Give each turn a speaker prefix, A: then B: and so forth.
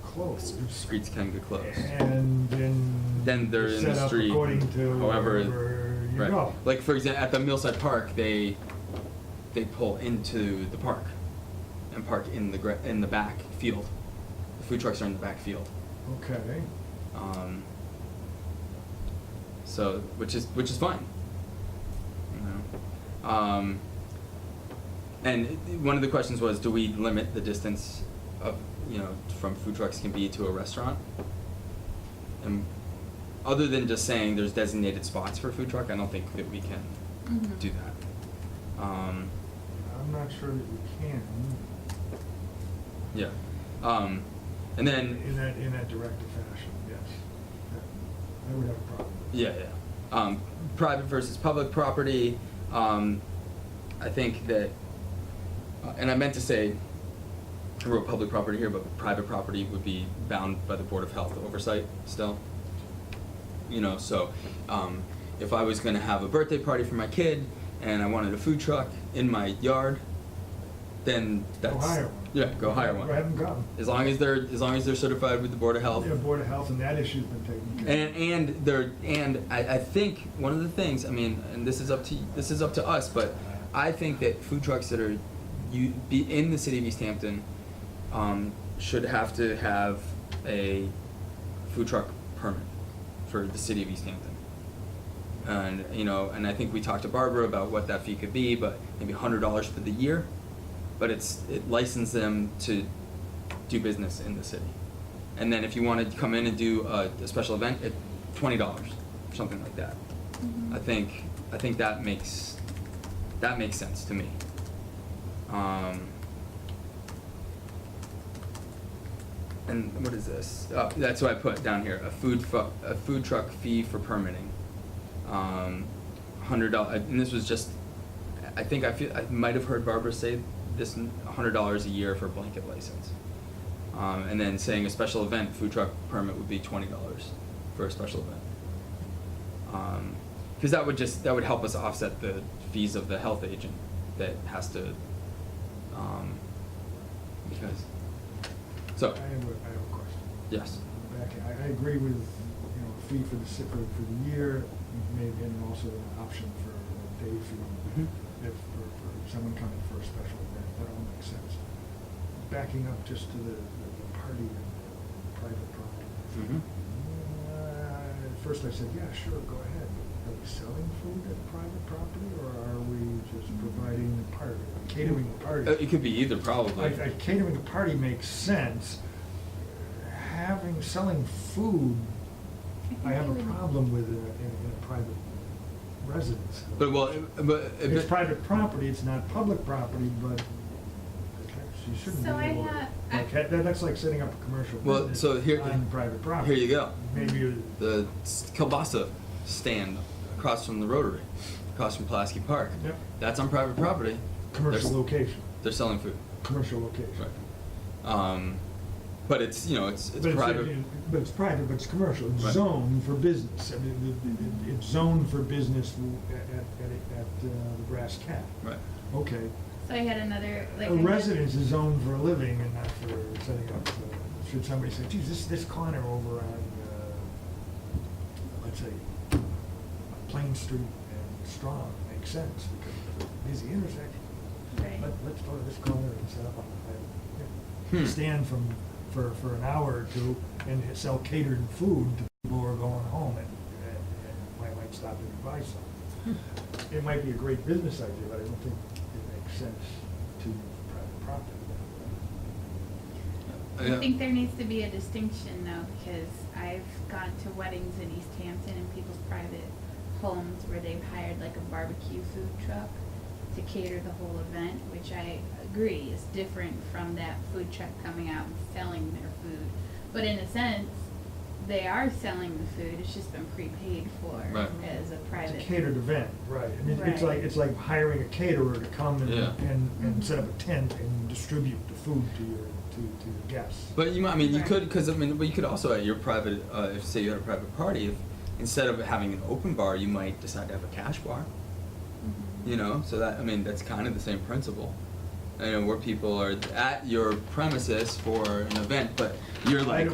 A: closed.
B: Streets can get closed.
A: And then.
B: Then they're in the
A: set up
B: street,
A: According to
B: however-
A: wherever you
B: Right.
A: go.
B: Like for example, at the Millside Park, they they pull into the park and park in the gra- in the back field. The food trucks are in the back field.
A: Okay,
B: Um, so which is which is fine. You know? Um, and it- one of the questions was, do we limit the distance of you know from food trucks can be to a restaurant? And other than just saying there's designated spots for food truck, I don't think that we can
C: Mhm.
B: do that. Um,
A: I'm not sure that you can
B: yeah. Um, and then
A: in that, in that directive fashion, yes. That- I would have a problem. with that.
B: Yeah, yeah. Um, private versus public property. Um, I think that, uh, and I meant to say, I wrote public property here, but private property would be bound by the Board of Health oversight still. You know, so um, if I was going to have a birthday party for my kid and I wanted a food truck in my yard, then that's
A: Go hire one.
B: yeah, go hire one.
A: I haven't gotten.
B: As long as they're as long as they're certified with the Board of Health.
A: Yeah, Board of Health and that issue's been taken care
B: And and there and I, I think one of the things I mean, and this is up to this is up to us, but I think that food trucks that are you be in the city of East Hampton um, should have to have a food truck permit for the city of East Hampton. And you know, and I think we talked to Barbara about what that fee could be, but maybe hundred dollars for the year. But it's it licensed them to do business in the city. And then if you wanted to come in and do a, a special event, it twenty dollars, something like that.
C: Mhm.
B: I think I think that makes that makes sense to me. Um, and what is this? Uh, that's what I put down here: a food fu- a food truck fee for permitting, um, hundred dollars. And this was just, I think I feel I might have heard Barbara say this: hundred dollars a year for a blanket license. Um, and then saying a special event food truck permit would be twenty dollars for a special event. Um 'cause because that would just that would help us offset the fees of the health agent that has to, um, because,
A: of.
B: so
A: I have a, I have a question.
B: yes,
A: back, I, I agree with, you know, a fee for the, si- for, for the year, maybe, and also an option for a day fee.
B: Mhm.
A: If, for, for someone coming for a special event, that all makes sense. Backing up just to the, the the party and the private property.
B: Mhm.
A: Uh, At first I said, yeah, sure, go ahead, but are we selling food at private property, or are we just providing the party, catering the party?
B: Mm-hmm. Uh, it could be either probably.
A: Like, like catering a party makes sense. Having, selling food, I have a problem with in a, in a- in a private residence.
B: But well, it- but uh, if
A: It's
B: it-
A: private property, it's not public property, but you shouldn't be
C: So I
A: able to.
C: have- I-
A: Like, that- that's like setting up a commercial
B: Well, so
A: business
B: here-
A: on private property.
B: Here you go.
A: Maybe you.
B: The s- kielbasa stand across from the Rotary, across from Pulaski Park.
A: Yep.
B: That's on private property.
A: Commercial
B: They're s-
A: location,
B: They're selling food.
A: commercial location.
B: Right. Um, but it's you know it's it's
A: But
B: private.
A: But it's private, but it's commercial, it's
B: Right.
A: zoned for business, I mean, it- it- it's zoned for business at, at, at, at uh, the Brass Cat.
B: right.
A: Okay.
C: So I had another, like.
A: A
C: I had-
A: residence is zoned for a living and not for setting up, uh, should somebody say, geez, this, this corner over on, uh, let's say, Plain Street and Strong makes sense, because it's a busy intersection.
C: Right.
A: Let, let's go to this corner and set up on the,
B: Hmm.
A: yeah. stand from, for, for an hour or two and sell catered food to people who are going home and, and and might, might stop and buy something.
B: Hmm.
A: It might be a great business idea, but I don't think it makes sense to private property.
C: I think there needs to be a distinction though, because I've gone to weddings in East Hampton and people's private homes where they've hired like a barbecue food truck to cater the whole event, which I agree is different from that food truck coming out and selling their food. But in a sense, they are selling the food, it's just been prepaid for
B: Right.
C: as
A: It's
C: a
A: a
C: private.
A: catered event, right, I mean, it's
C: Right. Mm-hmm.
A: like, it's like hiring a caterer to come and,
B: Yeah.
A: and, and set up a tent and distribute the food to your, to, to your guests.
B: But you might, I mean, you
C: Right.
B: could, because I mean, but you could also at your private, uh, if say you had a private party, if instead of having an open bar, you might decide to have a cash bar.
C: Mhm.
B: You know, so that I mean, that's kind of the same principle. you know, where people are at your premises for an event, but you're
A: I
B: like